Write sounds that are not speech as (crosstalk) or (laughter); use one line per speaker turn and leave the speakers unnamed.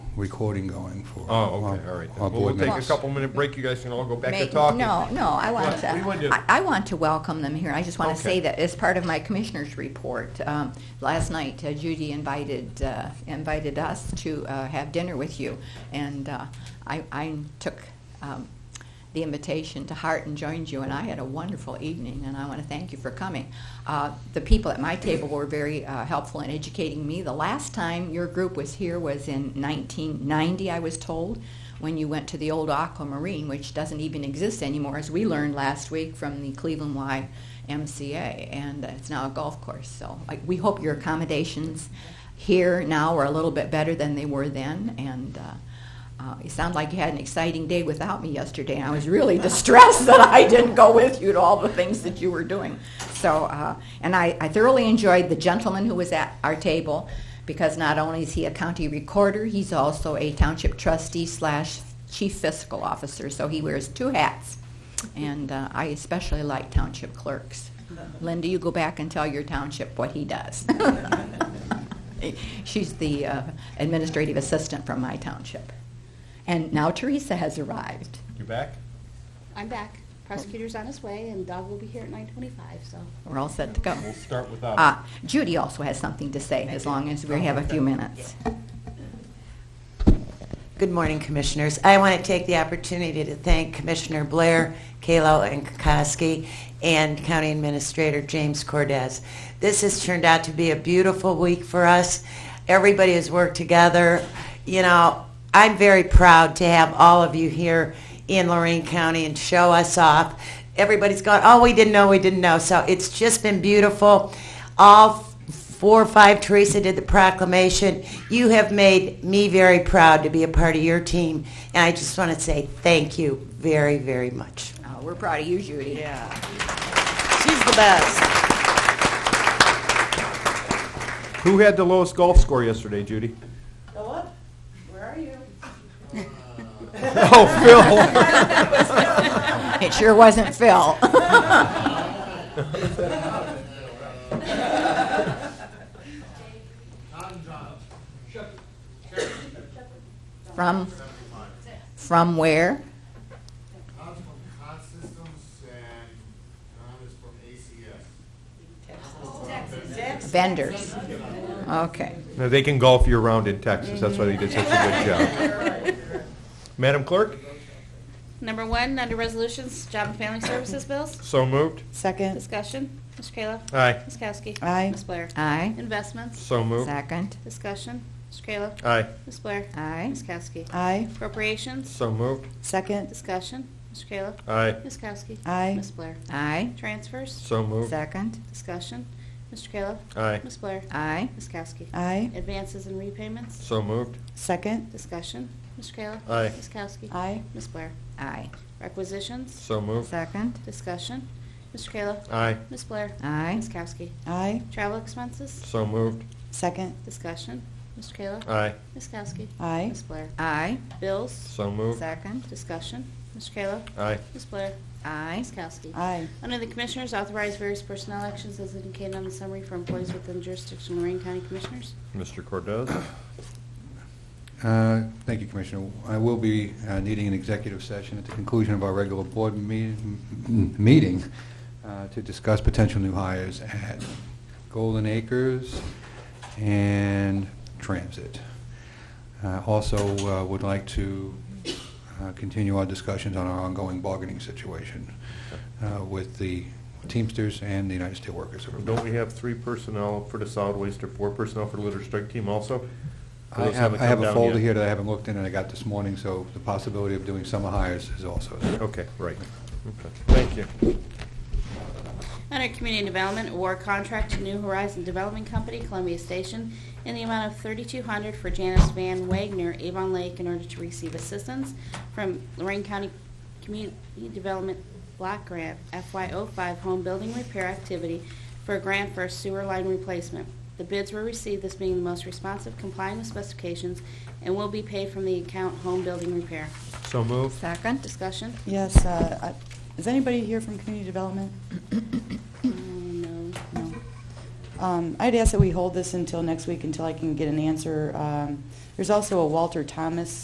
recording going for.
Oh,
our-
okay, all right.
our
Well, we'll
board
take a
members.
couple-minute break, you guys can all go back to
May-
talking.
No, no, I want to,
What do you wanna do?
I- I want to welcome them here. I just want
Okay.
to say that as part of my commissioner's report, um, last night uh, Judy invited, uh, invited us to uh, have dinner with you, and uh, I, I took um, the invitation to heart and joined you, and I had a wonderful evening, and I want to thank you for coming. Uh, The people at my table were very uh, helpful in educating me. The last time your group was here was in 1990, I was told, when you went to the old Aquamarine, which doesn't even exist anymore, as we learned last week from the Cleveland Y MCA, and it's now a golf course. So like, we hope your accommodations here now are a little bit better than they were then, and uh, uh, you sound like you had an exciting day without me yesterday, and I was really (laughs) distressed that I didn't go with you to all the things that you were doing. So, uh, and I, I thoroughly enjoyed the gentleman who was at our table, because not only is he a county recorder, he's also a township trustee slash chief fiscal officer, so he wears two hats. And uh, I especially like township clerks. Linda, you go back and tell your township what he does. (laughs) She's the uh, administrative assistant from my township. And now Teresa has arrived.
You back?
I'm back. Prosecutor's on his way, and Doug will be here at nine twenty-five, so.
We're all set to go.
We'll start with Doug.
Uh, Judy also has something to say, as long as we have a few minutes.
Good morning, Commissioners. I want to take the opportunity to thank Commissioner Blair, Kalo, and Kokoski, and County Administrator James Cordez. This has turned out to be a beautiful week for us. Everybody has worked together. You know, I'm very proud to have all of you here in Lorraine County and show us off. Everybody's gone, oh, we didn't know, we didn't know. So it's just been beautiful. All four or five, Teresa did the proclamation. You have made me very proud to be a part of your team, and I just want to say thank you very, very much.
Uh, We're proud of you, Judy. (laughs)
Yeah. She's the best.
Who had the lowest golf score yesterday, Judy? (laughs) (laughs) Oh,
It sure wasn't Phil. (laughs) From, from where?
Tom's from Con Systems and Ron is from ACS.
Vendors. Okay.
Phil. No, They can golf year-round in Texas, that's why they did such a good (laughs) job. Madam Clerk,
Number one, under resolutions, job and family services bills.
so moved.
Second,
Discussion, Mr. Kayla.
Aye.
Ms. Kowski.
Aye.
Ms. Blair.
Aye.
Investments,
So moved.
Second.
discussion, Mr. Kayla.
Aye.
Ms. Blair.
Aye.
Ms. Kowski.
aye.
Appropriations,
So moved.
Second,
discussion, Mr. Kayla.
Aye.
Ms. Kowski.
Aye.
Ms. Blair.
Aye.
Transfers,
So moved.
Second.
discussion, Mr. Kayla.
Aye.
Ms. Blair.
Aye.
Ms. Kowski.
aye.
Advances and repayments,
So moved.
Second,
discussion, Mr. Kayla.
Aye.
Ms. Kowski.
aye.
Ms. Blair.
Aye.
Requisitions,
So moved.
Second.
discussion, Mr. Kayla.
Aye.
Ms. Blair.
Aye.
Ms. Kowski.
Aye.
Travel expenses?
So moved.
Second,
Discussion. Mr. Kayla?
Aye.
Ms. Kowski?
aye.
Ms. Blair?
Aye.
Bills?
So moved.
Second.
Discussion. Mr. Kayla?
Aye.
Ms. Blair?
Aye.
Ms. Kowski?
Aye.
Under the Commissioners, authorize various personnel actions as indicated on the summary for employees within jurisdiction of Lorraine County Commissioners.
Mr. Cordez?
Uh, Thank you, Commissioner. I will be uh, needing an executive session at the conclusion of our regular board me- m- meeting uh, to discuss potential new hires at Golden Acres and Transit. Uh, Also, uh, would like to uh, continue our discussions on our ongoing bargaining situation uh, with the Teamsters and the United Steelworkers.
Don't we have three personnel for the solid waste or four personnel for the litter strike team also?
I
Those
have
haven't
I have
come
a
down
folder
yet.
here that I haven't looked in and I got this morning, so the possibility of doing summer hires is also there.
Okay, right. Okay. Thank you.
Under Community Development, award contract to New Horizon Development Company, Columbia Station, in the amount of thirty-two hundred for Janice Van Wagner, Avon Lake, in order to receive assistance from Lorraine County Community Development Block Grant FY05 Home Building Repair Activity for a grant for a sewer line replacement. The bids were received, this being the most responsive, complying with specifications, and will be paid from the account Home Building Repair.
So moved.
Second.
Discussion?
Yes, uh, I- is anybody here from community development?
Um, No.
No. Um, I'd ask that we hold this until next week, until I can get an answer. Um, There's also a Walter Thomas